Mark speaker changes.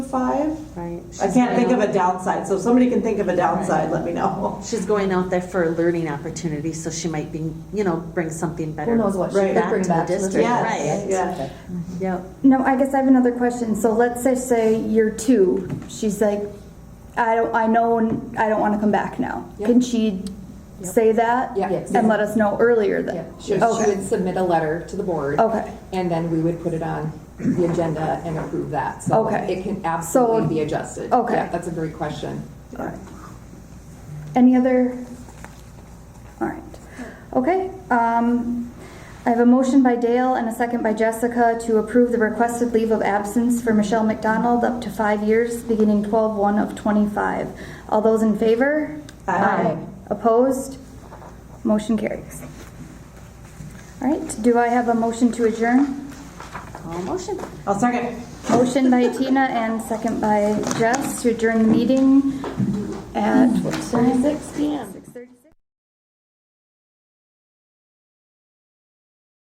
Speaker 1: five?
Speaker 2: Right.
Speaker 1: I
Speaker 2: She's
Speaker 1: can't
Speaker 2: going
Speaker 1: think of
Speaker 2: out-
Speaker 1: a downside, so if somebody can think of a downside, let me know.
Speaker 2: She's going out there for a learning opportunity, so she might be, you know, bring something better.
Speaker 3: Who knows what she
Speaker 1: Right.
Speaker 3: could
Speaker 2: Back to
Speaker 3: bring
Speaker 2: the
Speaker 3: back to the
Speaker 2: district.
Speaker 3: district.
Speaker 1: Yes, yeah.
Speaker 2: Yep.
Speaker 4: No, I guess I have another question. So let's say, say year two, she's like, I don't, I know, n- I don't want to come back now.
Speaker 3: Yep.
Speaker 4: Can she
Speaker 3: Yep.
Speaker 4: say that?
Speaker 3: Yeah. Yes.
Speaker 4: And let us know earlier
Speaker 3: Yeah,
Speaker 4: then?
Speaker 3: she she
Speaker 4: Okay,
Speaker 3: would submit a letter to the board.
Speaker 4: okay.
Speaker 3: And then we would put it on the agenda and approve that. So
Speaker 4: Okay.
Speaker 3: it can absolutely be adjusted.
Speaker 4: okay.
Speaker 3: Yeah, That's a great question.
Speaker 4: All right. Any other? All right. Okay. Um, I have a motion by Dale and a second by Jessica to approve the requested leave of absence for Michelle McDonald up to five years, beginning 12/1 of '25. All those in favor?
Speaker 1: Aye.
Speaker 4: Opposed? Motion carries. All right. Do I have a motion to adjourn?
Speaker 2: All motion.
Speaker 1: I'll second.
Speaker 4: Motion by Tina and second by Jess to adjourn the meeting at, what time is it?